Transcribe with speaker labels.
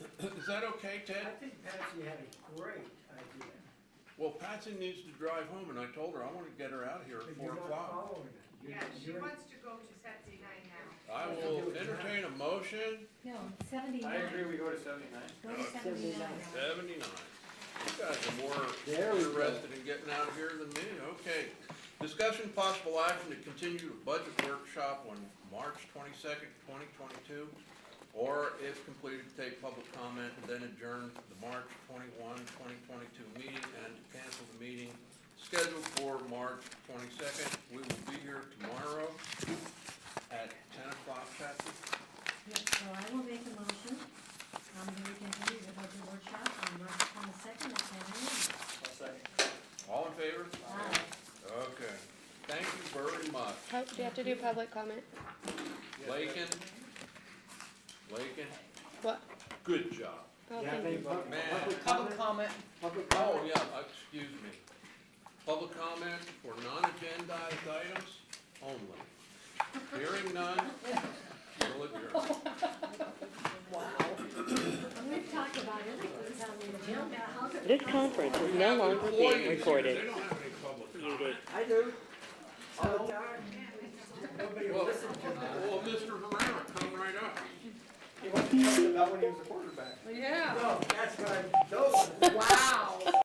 Speaker 1: that okay,
Speaker 2: I
Speaker 1: Ted?
Speaker 2: think Patsy had a great idea,
Speaker 1: Well, Patsy needs to drive home, and I told her I want to get her out here at
Speaker 2: but
Speaker 1: four
Speaker 2: you're not
Speaker 1: o'clock.
Speaker 2: following it. You're-
Speaker 3: Yeah, she
Speaker 2: you're-
Speaker 3: wants to go to Saturday night now.
Speaker 1: I will entertain a motion,
Speaker 4: No, seventy-nine.
Speaker 5: I agree, we go to seventy-nine.
Speaker 4: Go to seventy-nine.
Speaker 1: seventy-nine. You guys are more
Speaker 6: There we go.
Speaker 1: interested in getting out of here than me, okay. Discussion possible action to continue the budget workshop on March twenty-second, twenty twenty-two, or if completed, take public comment, and then adjourn the March 21, 2022 meeting, and to cancel the meeting scheduled for March twenty-second. We will be here tomorrow at ten o'clock, Patrick.
Speaker 4: Yep, so I will make a motion, um, that we continue the budget workshop on March twenty-second at seven.
Speaker 5: I'll second.
Speaker 1: All in favor?
Speaker 4: Aye.
Speaker 1: Okay. Thank you very much.
Speaker 7: Pu- Do you have to do public comment?
Speaker 1: Lakin, Lakin,
Speaker 7: What?
Speaker 1: good job.
Speaker 7: Oh,
Speaker 6: Yeah,
Speaker 7: thank you.
Speaker 6: thank you. Pub-
Speaker 1: Man.
Speaker 6: Public comment? Public
Speaker 1: Oh,
Speaker 6: comment?
Speaker 1: yeah, excuse me. Public comment for non-agendized items only. Hearing none, we'll adjourn.
Speaker 4: We've talked about everything on the agenda. How could-
Speaker 8: This conference is no longer
Speaker 1: Employees
Speaker 8: being
Speaker 1: here, They
Speaker 8: recorded.
Speaker 1: don't have any public comment.
Speaker 6: I do. All the time.
Speaker 2: Nobody will
Speaker 1: Well,
Speaker 2: listen to
Speaker 1: well, Mr. Herrera, come right up.
Speaker 5: He wants to tell us about when he was a quarterback.
Speaker 3: Yeah.